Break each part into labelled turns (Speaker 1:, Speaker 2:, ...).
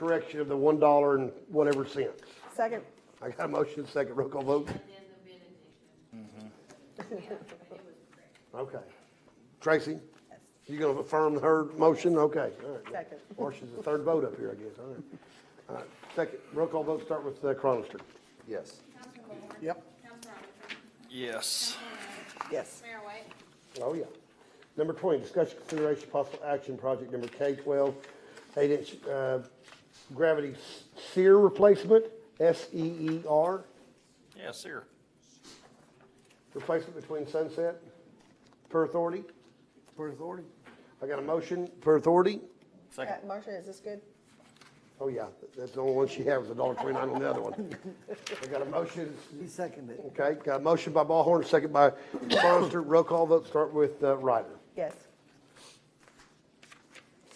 Speaker 1: correction of the one dollar and whatever cents.
Speaker 2: Second,
Speaker 1: I got a motion, second, roll call vote. Okay. Tracy, you gonna affirm her motion? Okay, all right.
Speaker 2: Second.
Speaker 1: Or she's the third vote up here, I guess, all right. All right, second, roll call vote, start with uh, Cronister.
Speaker 3: Yes.
Speaker 1: Yep.
Speaker 4: Counselor Robinson.
Speaker 3: Yes.
Speaker 2: yes.
Speaker 4: Mayor White.
Speaker 1: Oh, yeah. Number twenty, discussion consideration possible action, project number K twelve, eight inch, uh, gravity sear replacement, S E E R,
Speaker 3: Yes, sir.
Speaker 1: replacement between Sunset, per authority. Per authority. I got a motion, per authority.
Speaker 2: Uh, Marcia, is this good?
Speaker 1: Oh, yeah, that's the only one she has, a dollar twenty-nine on the other one. I got a motion,
Speaker 5: He seconded it.
Speaker 1: okay, got a motion by Ballhorn, second by Cronister, roll call vote, start with uh, Ryder.
Speaker 2: Yes.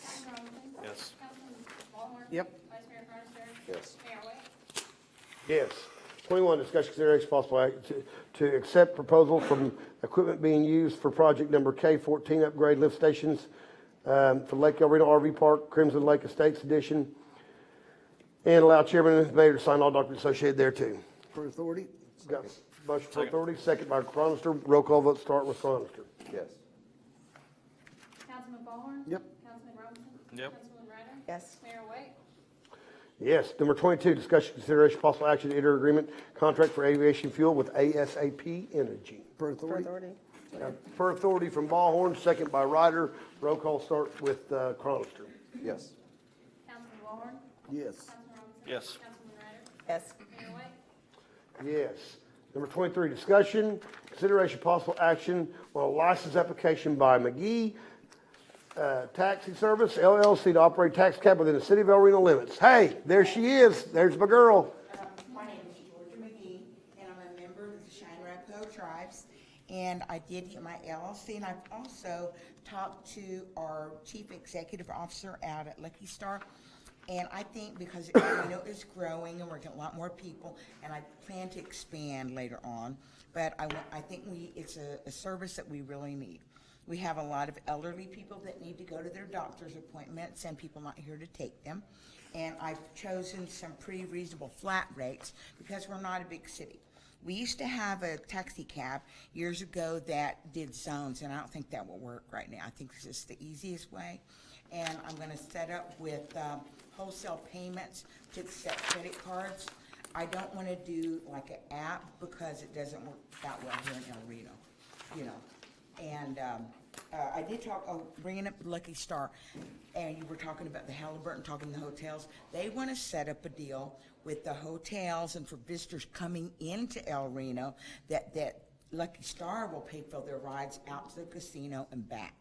Speaker 4: Counselor Robinson.
Speaker 3: Yes.
Speaker 4: Councilman Ballhorn.
Speaker 5: Yep.
Speaker 4: Vice Mayor Cronister.
Speaker 3: Yes.
Speaker 4: Mayor White.
Speaker 1: Yes. Twenty-one, discussion consideration possible act to, to accept proposal from equipment being used for project number K fourteen upgrade lift stations um, for Lake El Reno RV Park, Crimson Lake Estates Edition, and allow chairman and mayor to sign all documents associated there too.
Speaker 5: Per authority?
Speaker 1: Got motion for authority, second by Cronister. Roll call vote start with Cronister.
Speaker 3: Yes.
Speaker 4: Councilman Ballhorn.
Speaker 5: Yep.
Speaker 4: Councilman Robinson.
Speaker 3: Yep.
Speaker 4: Councilman Ryder.
Speaker 2: Yes.
Speaker 4: Mayor White.
Speaker 1: Yes. Number twenty-two, discussion consideration possible action to enter agreement contract for aviation fuel with ASAP Energy.
Speaker 5: Per
Speaker 2: For
Speaker 5: authority?
Speaker 2: authority?
Speaker 1: Now, Per authority from Ballhorn, second by Ryder. Roll call start with uh, Cronister.
Speaker 3: Yes.
Speaker 4: Councilman Ballhorn.
Speaker 5: Yes.
Speaker 4: Councilman Robinson.
Speaker 3: Yes.
Speaker 4: Councilman Ryder.
Speaker 2: Yes.
Speaker 4: Mayor White.
Speaker 1: Yes. Number twenty-three, discussion, consideration, possible action on a license application by McGee uh, Taxi Service LLC to operate tax cab within the city of El Reno limits. Hey, there she is. There's my girl.
Speaker 6: My name is Georgia McGee, and I'm a member of the Cheyenne Rapo Tribes. And I did get my LLC, and I've also talked to our chief executive officer out at Lucky Star. And I think because I know it's growing and we're getting a lot more people, and I plan to expand later on. But I, wa- I think we, it's a, a service that we really need. We have a lot of elderly people that need to go to their doctor's appointments and people not here to take them. And I've chosen some pretty reasonable flat rates because we're not a big city. We used to have a taxi cab years ago that did zones, and I don't think that will work right now. I think this is the easiest way. And I'm gonna set up with um, wholesale payments to accept credit cards. I don't wanna do like an app because it doesn't work that well here in El Reno, you know. And um, uh, I did talk, oh, bringing up Lucky Star, and you were talking about the Halliburton, talking the hotels. They want to set up a deal with the hotels and for visitors coming into El Reno that, that Lucky Star will pay for their rides out to the casino and back.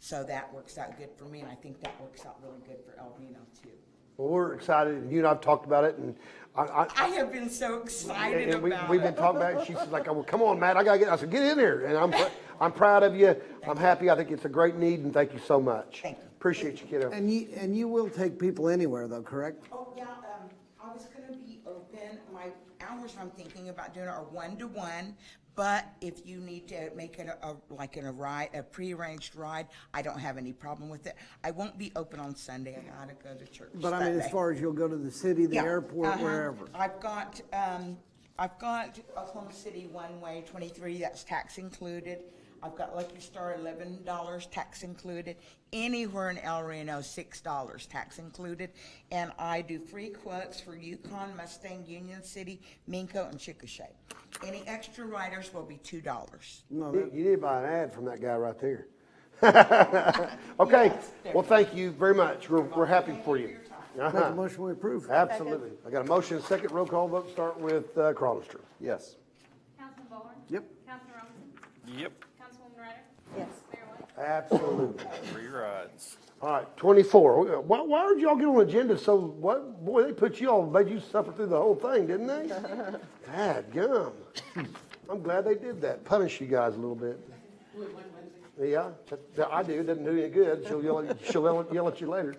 Speaker 6: So that works out good for me, and I think that works out really good for El Reno too.
Speaker 1: Well, we're excited, and you and I've talked about it, and I, I,
Speaker 6: I have been so excited
Speaker 1: And we,
Speaker 6: about
Speaker 1: we've been
Speaker 6: it.
Speaker 1: talking about it. She's like, well, come on, Matt, I gotta get, I said, get in here. And I'm, pr- I'm proud of you. I'm happy. I think it's a great need and thank you so much.
Speaker 6: Thank you.
Speaker 1: Appreciate you, kiddo.
Speaker 5: And you, and you will take people anywhere though, correct?
Speaker 6: Oh, yeah, um, I was gonna be open, my hours I'm thinking about doing are one-to-one, but if you need to make it a, a- like in a ride, a prearranged ride, I don't have any problem with it. I won't be open on Sunday, I gotta go to church
Speaker 5: But I mean, as
Speaker 6: Sunday.
Speaker 5: far as you'll go to the city, the
Speaker 6: Yeah,
Speaker 5: airport,
Speaker 6: uh-huh.
Speaker 5: wherever.
Speaker 6: I've got, um, I've got Oklahoma City one-way twenty-three, that's tax included. I've got Lucky Star eleven dollars, tax included. Anywhere in El Reno, six dollars, tax included. And I do free quotes for Yukon, Mustang, Union City, Minko, and Chickasha. Any extra riders will be two dollars.
Speaker 5: No,
Speaker 1: You
Speaker 5: that-
Speaker 1: you need to buy an ad from that guy right there. Okay, well, thank you very much. We're, we're happy for you.
Speaker 5: make a
Speaker 1: Uh-huh.
Speaker 5: motion we approve.
Speaker 1: Absolutely. I got a motion, second roll call vote, start with, uh, Cronister.
Speaker 3: Yes.
Speaker 4: Councilman Ballhorn.
Speaker 5: Yep.
Speaker 4: Councilman Robinson.
Speaker 3: Yep.
Speaker 4: Councilwoman Ryder.
Speaker 2: Yes.
Speaker 4: Mayor White.
Speaker 1: Absolutely.
Speaker 3: Three rides.
Speaker 1: All right, twenty-four. Why, why did y'all get on agenda so, what, boy, they put you all, made you suffer through the whole thing, didn't they? Bad gum. I'm glad they did that, punish you guys a little bit. Yeah, that- that I do, doesn't do you any good. She'll yell, at- she'll yell at- yell at you later.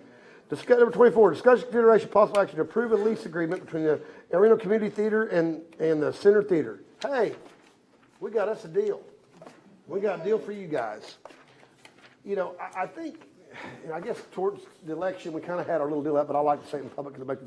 Speaker 1: Discuss, number twenty-four, discussion consideration possible action to approve a lease agreement between the El Reno Community Theater and, and the Center Theater. Hey, we got us a deal. We got a deal for you guys you know, I, I think and I guess towards the election, we kind of had our little deal up, but I like to say it in public because it makes